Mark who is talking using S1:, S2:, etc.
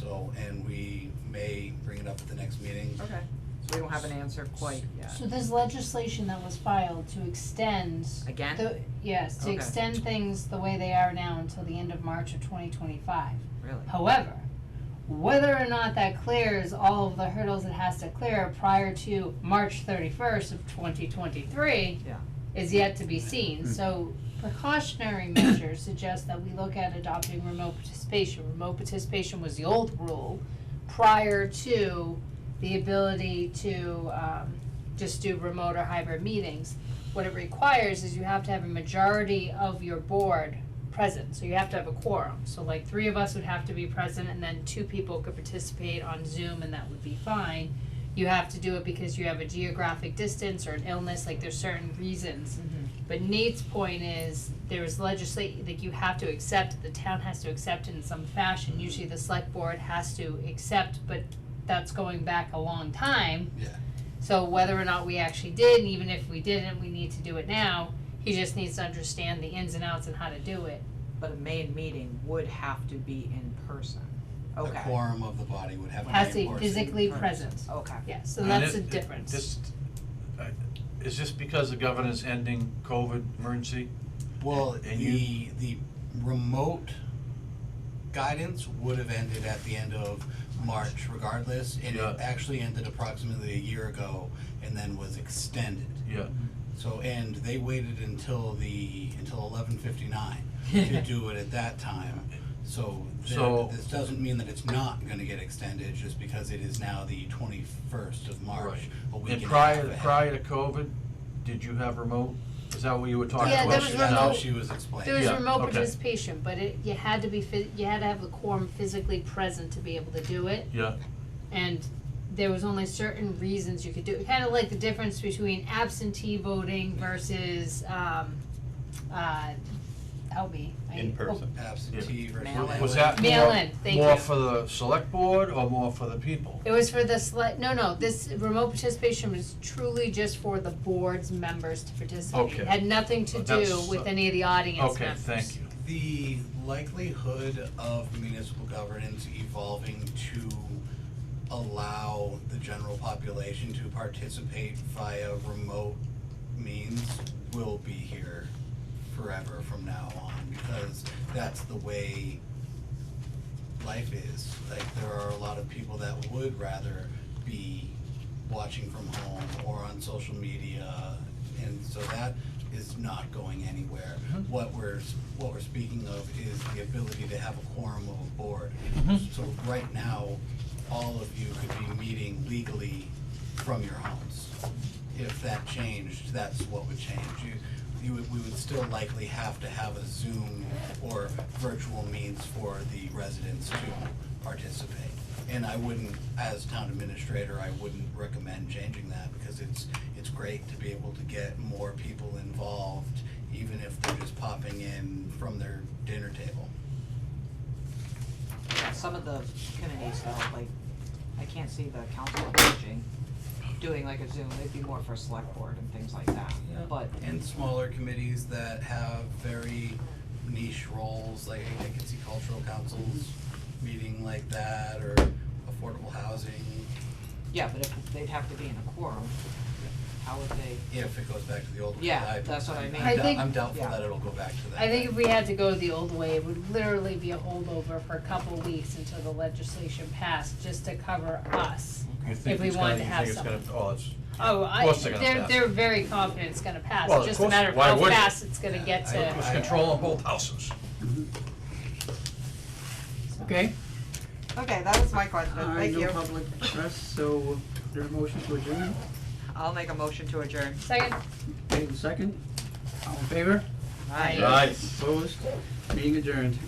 S1: So, and we may bring it up at the next meeting.
S2: Okay,
S3: So we don't have an answer quite yet.
S4: So there's legislation that was filed to extend
S3: Again,
S4: the, yes, to
S3: Okay.
S4: extend things the way they are now until the end of March of twenty twenty-five.
S3: really?
S4: However, whether or not that clears all of the hurdles it has to clear prior to March thirty-first of twenty twenty-three
S3: Yeah.
S4: is yet to be seen, so precautionary measures suggest that we look at adopting remote participation. Remote participation was the old rule prior to the ability to, um, just do remote or hybrid meetings. What it requires is you have to have a majority of your board present, so you have to have a quorum. So like three of us would have to be present and then two people could participate on Zoom and that would be fine. You have to do it because you have a geographic distance or an illness, like there's certain reasons.
S5: Mm-hmm.
S4: But Nate's point is, there's legislate, like you have to accept, the town has to accept in some fashion, usually the select board has to accept, but that's going back a long time.
S1: Yeah.
S4: So whether or not we actually did, and even if we didn't, we need to do it now, he just needs to understand the ins and outs and how to do it.
S3: But a main meeting would have to be in person.
S1: The
S3: Okay,
S1: quorum of the body would have a
S4: Has to
S1: name
S4: be
S1: or.
S4: physically
S3: Right.
S4: present,
S3: okay.
S4: yes, and
S6: And
S4: that's the
S6: it- it-
S4: difference.
S6: This, I- is this because the governor's ending COVID emergency?
S1: Well,
S6: And
S1: the,
S6: you-
S1: the remote guidance would have ended at the end of March regardless. And
S6: Yeah.
S1: it actually ended approximately a year ago and then was extended.
S6: Yeah,
S1: So, and they waited until the, until eleven fifty-nine to do it at that time. So, there-
S6: So-
S1: this doesn't mean that it's not gonna get extended, just because it is now the twenty-first of March,
S6: Right.
S1: a week
S6: and
S1: and a half
S6: prior,
S1: ahead.
S6: prior to COVID, did you have remote? Is that what you were talking
S4: Yeah,
S6: about?
S4: there was
S1: That's
S6: Now-
S1: how
S4: remote-
S1: she was explaining.
S4: There was
S6: Yeah,
S4: remote
S6: okay.
S4: participation, but it, you had to be, phys- you had to have the quorum physically present to be able to do it.
S6: Yeah,
S4: and there was only certain reasons you could do it. Kind of like the difference between absentee voting versus um, uh, help me.
S7: In
S4: I,
S7: person.
S1: Absentee versus.
S3: Mail-in.
S6: was that
S4: Oh, mail
S6: more,
S4: in. Thank
S6: more
S4: you.
S6: for the select board or more for the people?
S4: It was for the select. No, no. This remote participation was truly just for the board's members to participate.
S6: Okay.
S4: It had nothing to
S6: Oh,
S4: do
S6: that's-
S4: with any of the audience
S6: Okay,
S4: members.
S6: thank you.
S1: The likelihood of municipal governance evolving to allow the general population to participate via remote means will be here forever from now on, because that's the way life is. Like, there are a lot of people that would rather be watching from home or on social media, and so that is not going anywhere. What we're, what we're speaking of is the ability to have a quorum of a board. So right now, all of you could be meeting legally from your homes. If that changed, that's what would change. You, you would, we would still likely have to have a Zoom or virtual means for the residents to participate. And I wouldn't, as town administrator, I wouldn't recommend changing that because it's, it's great to be able to get more people involved, even if they're just popping in from their dinner table.
S3: Yeah, some of the committees though, like, I can't see the council on aging doing like a Zoom, they'd be more for select board and things like that,
S1: Yeah.
S3: but.
S1: And smaller committees that have very niche roles, like I could see cultural councils meeting like that, or affordable housing,
S3: Yeah, but if, they'd have to be in a quorum, how would they,
S1: if it goes back to the old. way,
S3: Yeah,
S1: I-
S3: that's what I
S1: I'm
S3: mean.
S4: I
S1: dou-
S4: think-
S1: I'm doubtful
S3: yeah.
S1: that it'll go back to that.
S4: I think if we had to go the old way, it would literally be a holdover for a couple weeks until the legislation passed, just to cover us.
S6: You think
S4: we
S6: it's gonna-
S4: wanted to have
S6: You think it's gonna, oh, it's,
S4: Oh, I,
S6: course they're gonna
S4: they're,
S6: pass.
S4: they're very confident it's gonna pass,
S6: Well,
S4: it's
S6: of
S4: just a
S6: course,
S4: matter of
S6: why
S4: how
S6: wouldn't it?
S4: fast it's gonna
S1: Yeah,
S4: get
S1: I-
S4: to.
S6: it's control on both houses.
S8: Okay,
S5: Okay, that was my question,
S8: uh,
S5: thank
S8: no
S5: you.
S8: public press, so there a motion to adjourn,
S5: I'll make a motion to adjourn.
S4: Second.
S8: okay, the second, all in favor,
S5: Aye.
S6: Right.
S8: opposed, meeting adjourned.